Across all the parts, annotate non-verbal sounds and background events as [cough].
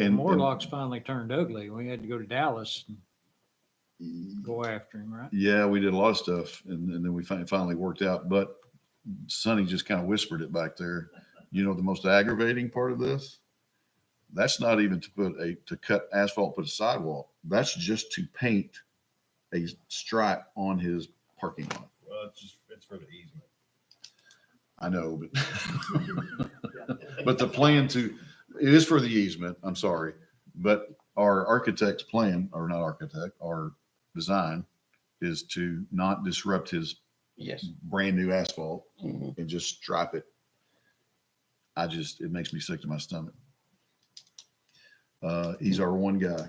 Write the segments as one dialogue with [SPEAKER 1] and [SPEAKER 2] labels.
[SPEAKER 1] And, and
[SPEAKER 2] Morlocks finally turned ugly. We had to go to Dallas and go after him, right?
[SPEAKER 1] yeah, we did a lot of stuff and, and then we fin- finally worked out, but Sonny just kind of whispered it back there. You know, the most aggravating part of this? That's not even to put a, to cut asphalt, put a sidewalk. That's just to paint a stripe on his parking lot.
[SPEAKER 3] Well, it's just, it's for the easement.
[SPEAKER 1] I know, but, [laughs] but the plan to, it is for the easement, I'm sorry, but our architect's plan, or not architect, our design is to not disrupt his
[SPEAKER 4] Yes.
[SPEAKER 1] brand new asphalt
[SPEAKER 4] Mhm.
[SPEAKER 1] and just stripe it. I just, it makes me sick to my stomach. Uh, he's our one guy.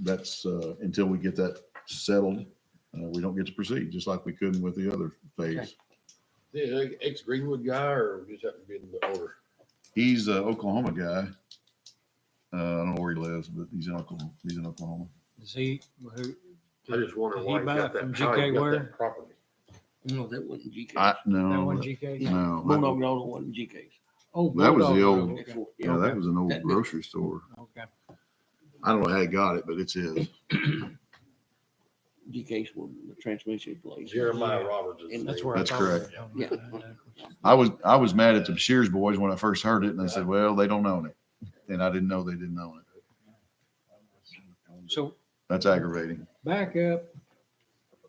[SPEAKER 1] That's, uh, until we get that settled, uh, we don't get to proceed, just like we couldn't with the other phase.
[SPEAKER 5] The ex Greenwood guy or just happened to be in the order?
[SPEAKER 1] He's a Oklahoma guy. Uh, I don't know where he lives, but he's in Oklahoma. He's in Oklahoma.
[SPEAKER 2] Is he, who,
[SPEAKER 5] I just wonder
[SPEAKER 2] Did
[SPEAKER 5] why
[SPEAKER 2] he
[SPEAKER 5] he
[SPEAKER 2] buy
[SPEAKER 5] got
[SPEAKER 2] it from
[SPEAKER 5] that, how
[SPEAKER 2] GK
[SPEAKER 5] he got
[SPEAKER 2] Ware?
[SPEAKER 5] that property.
[SPEAKER 4] No, that wasn't GK.
[SPEAKER 1] I
[SPEAKER 2] that
[SPEAKER 1] no,
[SPEAKER 2] one
[SPEAKER 1] that-
[SPEAKER 2] GK?
[SPEAKER 4] Bulldog
[SPEAKER 1] no. I-
[SPEAKER 4] Road it wasn't GK's.
[SPEAKER 2] Oh,
[SPEAKER 1] That was the
[SPEAKER 2] Bulldog
[SPEAKER 1] old-
[SPEAKER 2] Road. Okay.
[SPEAKER 1] Yeah, that was an old
[SPEAKER 4] That-
[SPEAKER 1] grocery store.
[SPEAKER 2] Okay.
[SPEAKER 1] I don't know how he got it, but it's his.
[SPEAKER 4] GK's was the transmission place.
[SPEAKER 5] Jeremiah Roberts is.
[SPEAKER 4] And
[SPEAKER 5] the
[SPEAKER 2] That's
[SPEAKER 5] name.
[SPEAKER 2] where I
[SPEAKER 1] That's
[SPEAKER 2] thought it
[SPEAKER 1] correct.
[SPEAKER 2] was.
[SPEAKER 4] Yeah.
[SPEAKER 1] I was I was mad at the Shears boys when I first heard it, and I said, "Well, they don't own it," and I didn't know they didn't own it.
[SPEAKER 2] So
[SPEAKER 1] That's aggravating.
[SPEAKER 2] back up,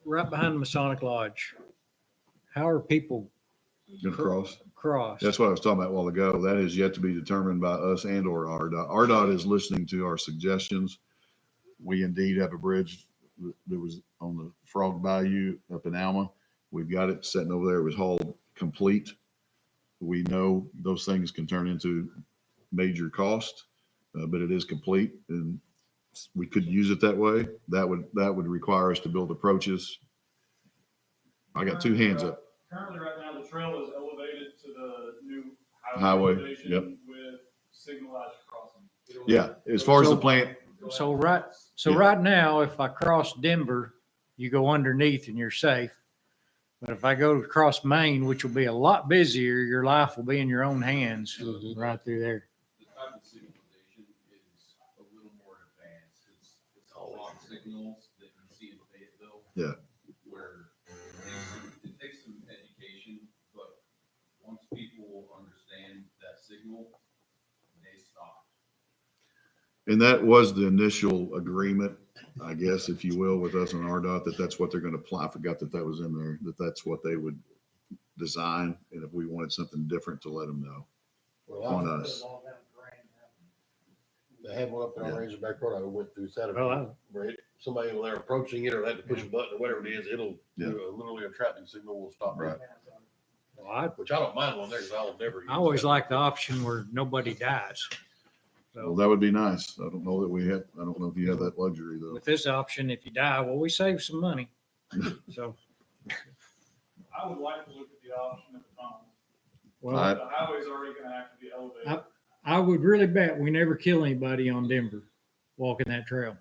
[SPEAKER 2] right behind the Masonic Lodge. How are people
[SPEAKER 1] Gonna cross.
[SPEAKER 2] crossed?
[SPEAKER 1] That's what I was talking about a while ago. That is yet to be determined by us and or RDOT. RDOT is listening to our suggestions. We indeed have a bridge that- that was on the Frog Bayou up in Alma. We've got it sitting over there. It was hauled complete. We know those things can turn into major cost, uh, but it is complete and we could use it that way. That would, that would require us to build approaches. I got two hands up.
[SPEAKER 6] Currently, right now, the trail is elevated to the new
[SPEAKER 1] Highway,
[SPEAKER 6] highway elevation with signalized crossing. It'll-
[SPEAKER 1] Yeah, as far as the plant,
[SPEAKER 6] it'll have-
[SPEAKER 2] So right, so
[SPEAKER 1] Yeah.
[SPEAKER 2] right now, if I cross Denver, you go underneath and you're safe. But if I go across Maine, which will be a lot busier, your life will be in your own hands
[SPEAKER 1] Mm-hmm.
[SPEAKER 4] Mhm.
[SPEAKER 2] right through there.
[SPEAKER 7] the type of signalization is a little more advanced. It's, it's all lock signals that you see in Fayetteville.
[SPEAKER 1] Yeah.
[SPEAKER 7] Where it takes some- it takes some education, but once people understand that signal, they stop.
[SPEAKER 1] And that was the initial agreement, I guess, if you will, with us on RDOT, that that's what they're gonna apply. I forgot that that was in there, that that's what they would design. And if we wanted something different, to let them know.
[SPEAKER 5] Well,
[SPEAKER 1] on
[SPEAKER 5] I-
[SPEAKER 1] us.
[SPEAKER 5] They had one up there on
[SPEAKER 1] Yeah.
[SPEAKER 5] Razorback Road. I went through Saturday.
[SPEAKER 2] Well, I-
[SPEAKER 5] Right, somebody over there approaching it or they had to push a button or whatever it is, it'll,
[SPEAKER 1] Yeah.
[SPEAKER 5] do a- literally a traffic signal will stop.
[SPEAKER 1] Right.
[SPEAKER 2] Well, I,
[SPEAKER 5] Which I don't mind one there, cause I'll never. use
[SPEAKER 2] I always
[SPEAKER 5] that.
[SPEAKER 2] like the option where nobody dies.
[SPEAKER 1] Well, that would be nice. I don't know that we have, I don't know if you have that luxury though.
[SPEAKER 2] With this option, if you die, well, we save
[SPEAKER 1] [laughs]
[SPEAKER 2] some money. So,
[SPEAKER 6] I would like to look at the option of the tunnel.
[SPEAKER 2] well,
[SPEAKER 1] I-
[SPEAKER 6] The highway's already gonna have to be elevated.
[SPEAKER 2] I- I would really bet we never kill anybody on Denver walking that trail.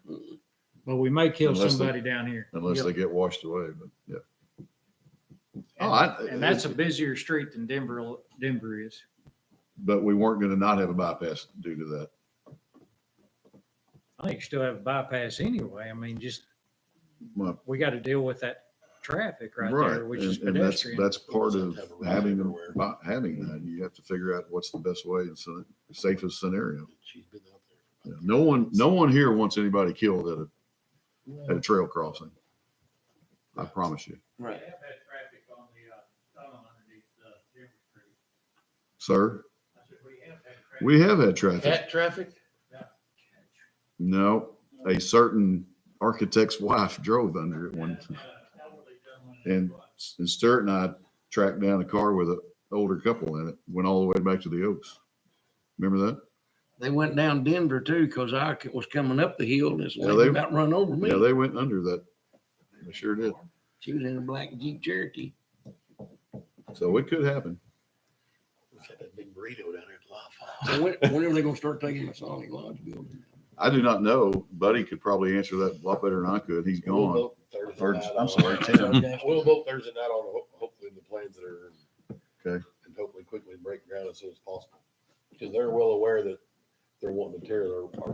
[SPEAKER 2] But we may kill
[SPEAKER 1] Unless they-
[SPEAKER 2] somebody down here.
[SPEAKER 1] Unless they get washed away, but yeah. Oh, I-
[SPEAKER 2] And that's a busier street than Denver, Denver is.
[SPEAKER 1] But we weren't gonna not have a bypass due to that.
[SPEAKER 2] I think you still have a bypass anyway. I mean, just,
[SPEAKER 1] My-
[SPEAKER 2] we got to deal with that traffic right
[SPEAKER 1] Right.
[SPEAKER 2] there, which is
[SPEAKER 1] And and that's,
[SPEAKER 2] pedestrian.
[SPEAKER 1] that's part of
[SPEAKER 5] Have a road
[SPEAKER 1] having,
[SPEAKER 5] everywhere.
[SPEAKER 1] by having that. You have to figure out what's the best way and so- safest scenario.
[SPEAKER 5] She's been out there.
[SPEAKER 1] Yeah, No one, no one here wants anybody killed at a, at a trail crossing. I promise you.
[SPEAKER 4] Right.
[SPEAKER 6] have had traffic on the, uh, tunnel underneath, uh, Denver Street.
[SPEAKER 1] Sir,
[SPEAKER 6] I said, we have had traffic.
[SPEAKER 1] we have had traffic.
[SPEAKER 5] Cat traffic?
[SPEAKER 1] No, a certain architect's wife drove under it one.
[SPEAKER 6] uh,
[SPEAKER 1] And and Sturt and I tracked down a car with an older couple in it, went all the way back to the Oaks. Remember that?
[SPEAKER 4] They went down Denver too, cause I c- was coming up the hill and this
[SPEAKER 1] Yeah,
[SPEAKER 4] lady
[SPEAKER 1] they-
[SPEAKER 4] about run over
[SPEAKER 1] Yeah,
[SPEAKER 4] me.
[SPEAKER 1] they went under that. They sure did.
[SPEAKER 4] She was in a black Jeep Cherokee.
[SPEAKER 1] So it could happen.
[SPEAKER 5] It's got that big burrito down there at Lafayette.
[SPEAKER 4] So when, when are they gonna start taking the Sonic
[SPEAKER 1] [laughs]
[SPEAKER 4] Lodge building?
[SPEAKER 1] I do not know. Buddy could probably answer that a lot better than I could. He's
[SPEAKER 5] We'll
[SPEAKER 1] gone.
[SPEAKER 5] vote Thursday
[SPEAKER 1] Third-
[SPEAKER 5] night
[SPEAKER 1] I'm
[SPEAKER 5] on-
[SPEAKER 1] sorry, Tim.
[SPEAKER 5] We'll vote Thursday night on, ho- hopefully the plans that are.
[SPEAKER 1] Okay.
[SPEAKER 5] And hopefully quickly break ground as soon as possible. Because they're well aware that they're wanting to tear their, our